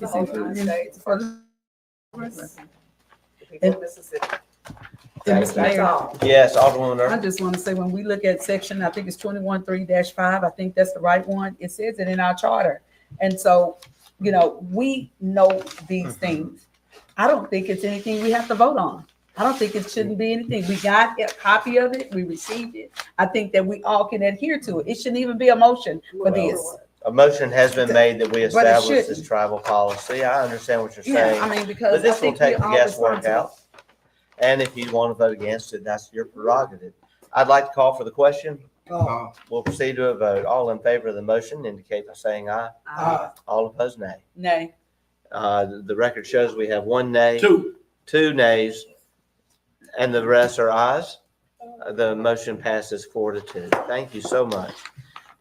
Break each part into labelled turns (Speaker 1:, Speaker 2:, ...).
Speaker 1: The whole United States.
Speaker 2: for
Speaker 1: The people of Mississippi.
Speaker 2: And Mr.
Speaker 1: That's
Speaker 2: Mayor,
Speaker 1: all.
Speaker 3: Yes, Alderwoman
Speaker 2: I
Speaker 3: Irving.
Speaker 2: just want to say, when we look at section, I think it's twenty-one three five, I think that's the right one. It says it in our charter. And so, you know, we know these
Speaker 3: Mhm.
Speaker 2: things. I don't think it's anything we have to vote on. I don't think it shouldn't be anything. We got a copy of it, we received it. I think that we all can adhere to it. It shouldn't even be a motion for this.
Speaker 3: A motion has been made that we
Speaker 2: But it
Speaker 3: establish this
Speaker 2: shouldn't.
Speaker 3: travel policy. I understand what you're
Speaker 2: Yeah,
Speaker 3: saying.
Speaker 2: I mean,
Speaker 3: But
Speaker 2: because I
Speaker 3: this will
Speaker 2: think we
Speaker 3: take the
Speaker 2: all
Speaker 3: guesswork
Speaker 2: responsible.
Speaker 3: out. And if you want to vote against it, that's your prerogative. I'd like to call for the question.
Speaker 4: Uh,
Speaker 3: We'll proceed to a vote. All in favor of the motion indicate by saying aye.
Speaker 2: Uh,
Speaker 3: All opposed, nay.
Speaker 2: Nay,
Speaker 3: Uh, the- the record shows we have one nay,
Speaker 4: Two.
Speaker 3: two nays, and the rest are ayes. Uh, The motion passes four to two. Thank you so much.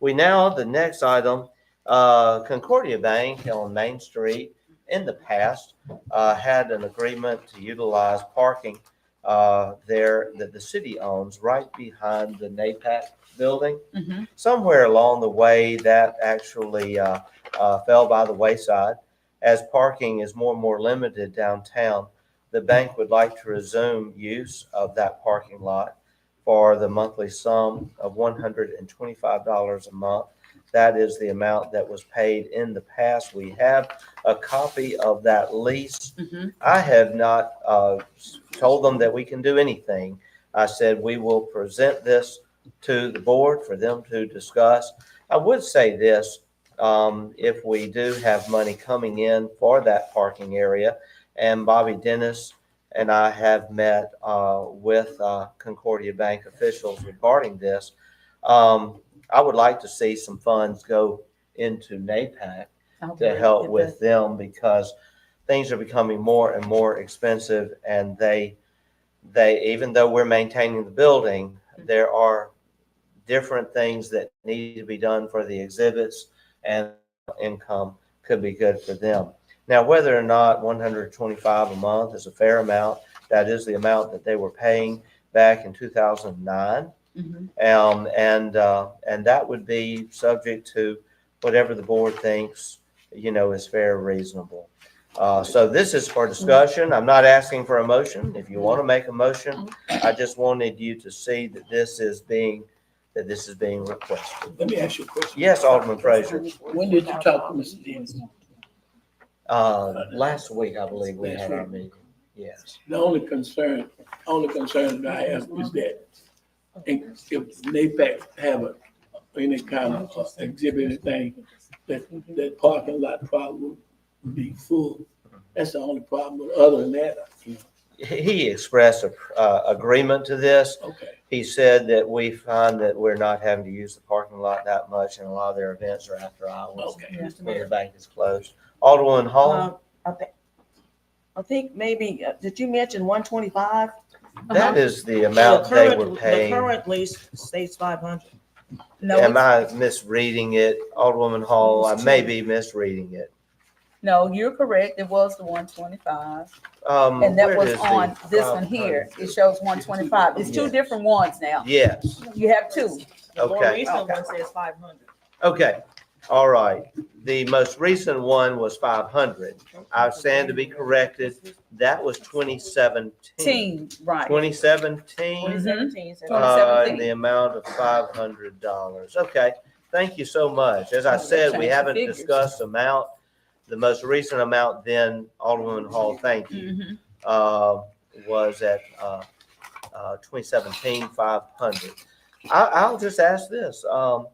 Speaker 3: We now, the next item, uh, Concordia Bank on Main Street in the past, uh, had an agreement to utilize parking, uh, there that the city owns right behind the NAPAC building
Speaker 2: Mhm.
Speaker 3: somewhere along the way, that actually uh, uh, fell by the wayside. As parking is more and more limited downtown, the bank would like to resume use of that parking lot for the monthly sum of $125 a month. That is the amount that was paid in the past. We have a copy of that lease
Speaker 2: Mhm.
Speaker 3: I have not uh, told them that we can do anything. I said we will present this to the board for them to discuss. I would say this, um, if we do have money coming in for that parking area, and Bobby Dennis and I have met uh, with uh, Concordia Bank officials regarding this. Um, I would like to see some funds go into NAPAC
Speaker 2: I hope
Speaker 3: to
Speaker 2: we
Speaker 3: help
Speaker 2: get
Speaker 3: with them because things are becoming more and more expensive and they, they, even though we're maintaining the building, there are different things that need to be done for the exhibits and income could be good for them. Now, whether or not one hundred twenty-five a month is a fair amount, that is the amount that they were paying back in two thousand and nine.
Speaker 2: the- Mhm.
Speaker 3: Um, and, uh, and that would be subject to whatever the board thinks, you know, is fair, and reasonable. Uh, so this is for discussion. I'm not asking for a motion. If you want to make a motion, I just wanted you to see that this is being, that this is being requested.
Speaker 4: Let me ask you a question.
Speaker 3: Yes, Alderman Frazier.
Speaker 4: When did you talk to Mr. Dennis?
Speaker 3: Uh, last week, I believe we had our meeting. Yes.
Speaker 4: The only concern, only concern that I have is that if if NAPAC have a- any kind of uh, exhibit or thing, that, that parking lot problem would be full. That's the only problem. Other than that, you know,
Speaker 3: He expressed, a- uh, agreement to this.
Speaker 4: okay.
Speaker 3: He said that we find that we're not having to use the parking lot that much and a lot of their events are after hours.
Speaker 4: Okay.
Speaker 5: Mr.
Speaker 3: When the
Speaker 5: Mayor.
Speaker 3: bank is closed. Alderman Hall,
Speaker 5: Um, I thi- I think maybe, uh, did you mention one twenty-five?
Speaker 3: that
Speaker 2: Uh-huh.
Speaker 3: is the amount they were
Speaker 5: The
Speaker 3: paying.
Speaker 5: current lease states five hundred.
Speaker 2: No,
Speaker 3: Am
Speaker 2: it's-
Speaker 3: I misreading it? Alderwoman Hall, I may be misreading it.
Speaker 2: no, you're correct. It was the one twenty-five.
Speaker 3: Um,
Speaker 2: And that
Speaker 3: where
Speaker 2: was
Speaker 3: does the
Speaker 2: on this one here. It shows one twenty-five. It's two
Speaker 3: Yes.
Speaker 2: different ones now.
Speaker 3: Yes,
Speaker 2: You have two.
Speaker 5: The more
Speaker 3: Okay.
Speaker 5: recent one says five hundred.
Speaker 3: okay, all right. The most recent one was five hundred. I stand to be corrected. That was twenty seventeen.
Speaker 2: Team, right.
Speaker 3: Twenty seventeen?
Speaker 5: Twenty seventeen says.
Speaker 2: Twenty
Speaker 3: Uh,
Speaker 2: seventeen.
Speaker 3: in the amount of five hundred dollars. Okay, thank you so much. As I
Speaker 2: Oh, they
Speaker 3: said,
Speaker 2: changed
Speaker 3: we
Speaker 2: the
Speaker 3: haven't
Speaker 2: figures.
Speaker 3: discussed amount. The most recent amount then, Alderman Hall, thank you,
Speaker 2: Mhm.
Speaker 3: uh, was at, uh, uh, twenty seventeen, five hundred. I, I'll just ask this, um,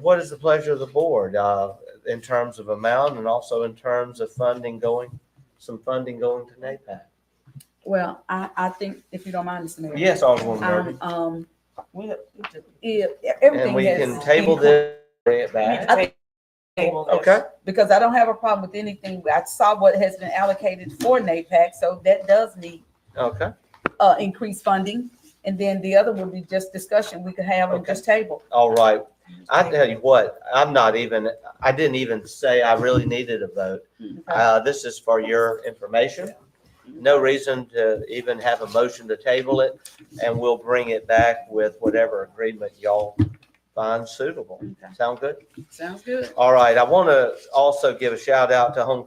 Speaker 3: what is the pleasure of the board, uh, in terms of amount and also in terms of funding going, some funding going to NAPAC?
Speaker 2: Well, I, I think if you don't mind, Mr. Mayor.
Speaker 3: Yes, Alderman Murphy.
Speaker 2: Um, um,
Speaker 5: We, we just
Speaker 2: if,
Speaker 3: And
Speaker 2: everything
Speaker 3: we
Speaker 2: has.
Speaker 3: can table
Speaker 2: been-
Speaker 3: this, bring it
Speaker 5: we
Speaker 3: back.
Speaker 5: need to take- table this.
Speaker 3: Okay.
Speaker 2: Because I don't have a problem with anything. I saw what has been allocated for NAPAC, so that does need,
Speaker 3: Okay,
Speaker 2: uh, increased funding. And then the other would be just discussion we could have on
Speaker 3: Okay.
Speaker 2: just table.
Speaker 3: all right. I tell you what, I'm not even, I didn't even say I really needed a vote. Uh, this is for your information. No reason to even have a motion to table it, and we'll bring it back with whatever agreement y'all find suitable.
Speaker 2: Okay.
Speaker 3: Sound good?
Speaker 2: Sounds good.
Speaker 3: All right, I want to also give a shout out to Home